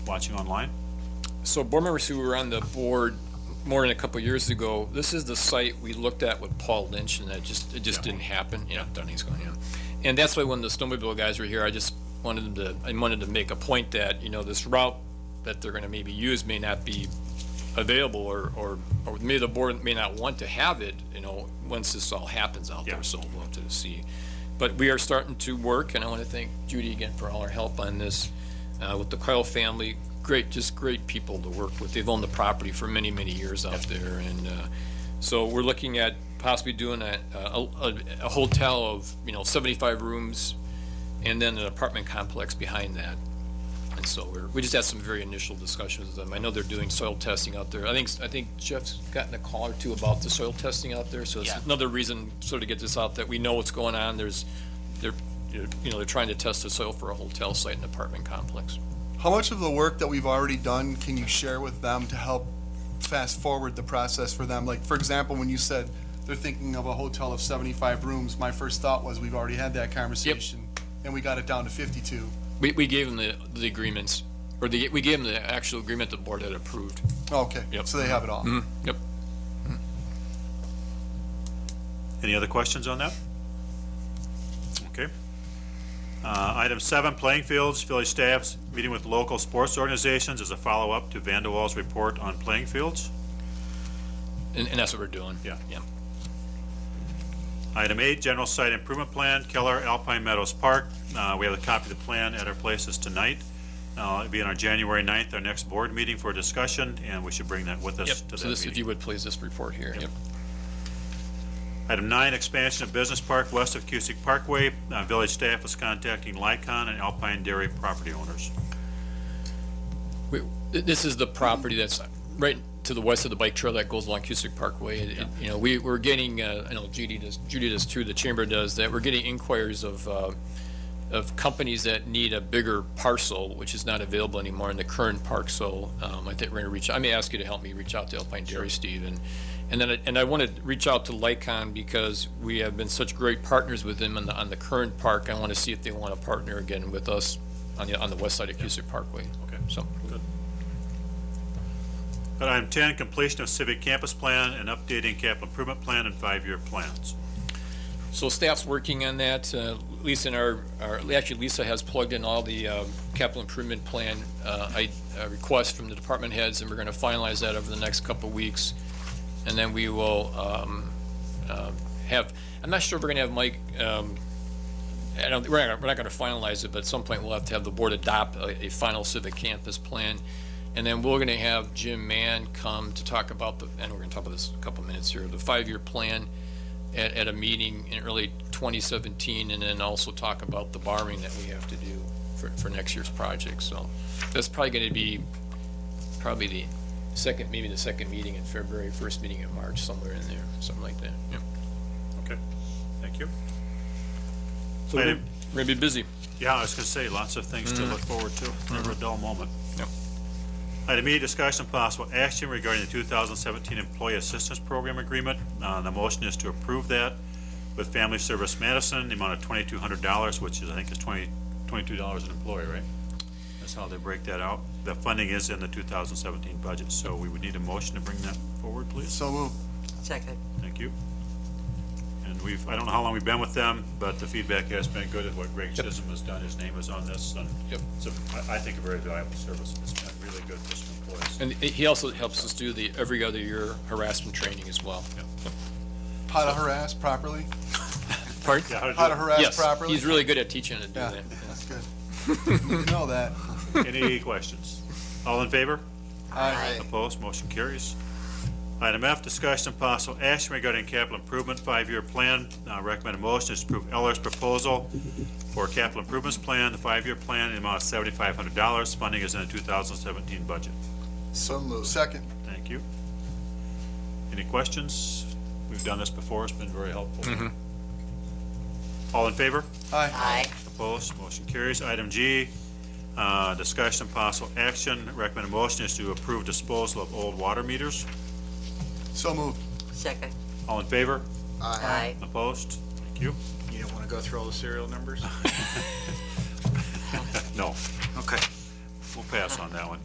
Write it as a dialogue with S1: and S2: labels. S1: watching online?
S2: So board members who were on the board more than a couple years ago, this is the site we looked at with Paul Lynch and that just, it just
S1: Yeah.
S2: didn't happen. Yeah, Dunny's going, yeah. And that's why when the snowmobile guys were here, I just wanted them to, I wanted to make a point that, you know, this route that they're gonna maybe use may not be available or, or, or maybe the board may not want to have it, you know, once this all happens out
S1: Yeah.
S2: there, so we'll have to see. But we are starting to work, and I want to thank Judy again for all her help on this, uh, with the Coyle family. Great, just great people to work with. They've owned the property for many, many years out there, and, uh, so we're looking at possibly doing a, a, a- a hotel of, you know, seventy-five rooms, and then an apartment complex behind that. And so we're, we just had some very initial discussions with them. I know they're doing soil testing out there. I think, I think Jeff's gotten a call or two about the soil testing out there, so it's
S1: Yeah.
S2: another reason sort of get this out, that we know what's going on. There's, they're, you know, they're trying to test the soil for a hotel site and apartment complex.
S3: How much of the work that we've already done can you share with them to help fast forward the process for them? Like, for example, when you said they're thinking of a hotel of seventy-five rooms, my first thought was we've already had that conversation. And we got it down to fifty-two.
S2: We, we gave them the, the agreements, or the, we gave them the actual agreement the board had approved.
S3: Okay,
S2: Yep. Mm-hmm.
S3: so they have it all.
S2: Yep.
S1: Any other questions on that? Okay. Uh, Item seven, playing fields, village staffs meeting with local sports organizations as a follow-up to Vandewall's report on playing fields.
S2: And, and that's what we're doing.
S1: Yeah.
S2: Yeah.
S1: Item eight, general site improvement plan, Keller Alpine Meadows Park. Uh, We have a copy of the plan at our places tonight. Uh, It'll be on our January 9th, our next board meeting for discussion, and we should bring that with
S2: Yep.
S1: us to
S2: So
S1: that
S2: this, if you
S1: meeting.
S2: would please, this report here. Yep.
S1: Item nine, expansion of business park west of Cusick Parkway. Uh, Village staff is contacting Lycon and Alpine Dairy property owners.
S2: We- th- This is the property that's right to the west of the bike trail that goes along Cusick Parkway. It- it- You know, we, we're getting, uh, I know Judy does, Judy does too, the chamber does, that we're getting inquiries of, uh, of companies that need a bigger parcel, which is not available anymore in the current park, so, um, I think we're gonna reach, I may ask you to help me reach out to Alpine Dairy, Steve, and, and then, I- and I wanna reach out to Lycon because we have been such great partners with them on the, on the current park. I wanna see if they wanna partner again with us on the, on the west side of Cusick Parkway.
S1: Okay.
S2: So,
S1: But item 10, completion of civic campus plan and updating capital improvement plan and five-year plans.
S2: So staff's working on that. Uh, Lisa and our, our, actually Lisa has plugged in all the um, capital improvement plan uh, I- uh, requests from the department heads, and we're going to finalize that over the next couple of weeks. And then we will um, um, have, I'm not sure if we're going to have Mike, um, I don't, we're not, we're not going to finalize it, but at some point we'll have to have the board adopt a, a final civic campus plan. And then we're going to have Jim Mann come to talk about the, and we're going to talk about this in a couple of minutes here, the five-year plan at, at a meeting in early 2017, and then also talk about the borrowing that we have to do for, for next year's project. So that's probably going to be probably the second, maybe the second meeting in February, first meeting in March, somewhere in there, something like that. Yep.
S1: Okay, thank you.
S2: So we're
S1: Item-
S2: going to be busy.
S1: Yeah, I was gonna say, lots of things to look forward to, never a dull moment.
S2: Yep.
S1: Item E, discussion and possible action regarding the 2017 Employee Assistance Program Agreement. Uh, The motion is to approve that with Family Service Madison, the amount of $2,200, which is, I think, is 20 $22 an employee, right? That's how they break that out. The funding is in the 2017 budget, so we would need a motion to bring that forward, please.
S3: So move.
S4: Second.
S1: Thank you. And we've, I don't know how long we've been with them, but the feedback has been good of what Greg Chisholm has done. His name is on this, and
S2: Yep.
S1: it's, a- I I think, a very valuable service. It's been really good for some employees.
S2: And he he also helps us do the every other year harassment training as well.
S3: How to harass properly,
S2: Pardon?
S1: Yeah,
S3: how to
S1: do-
S3: harass
S2: Yes,
S3: properly.
S2: he's really good at teaching how to do
S3: Yeah,
S2: that.
S3: that's good. You know that.
S1: Any questions? All in favor?
S3: Aye.
S1: Opposed? Motion carries. Item F, discussion and possible action regarding capital improvement five-year plan. Uh, Recommended motion is to approve Eller's proposal for capital improvements plan, the five-year plan, in the amount of $7,500. Funding is in the 2017 budget.
S3: So move. Second.
S1: Thank you. Any questions? We've done this before, it's been very helpful. All in favor?
S3: Aye.
S4: Aye.
S1: Opposed? Motion carries. Item G, uh, discussion and possible action. Recommended motion is to approve disposal of old water meters.
S3: So moved.
S4: Second.
S1: All in favor?
S4: Aye.
S1: Opposed? Thank you.
S5: You don't want to go through all the serial numbers?
S1: No.
S5: Okay.
S1: we'll pass on that one.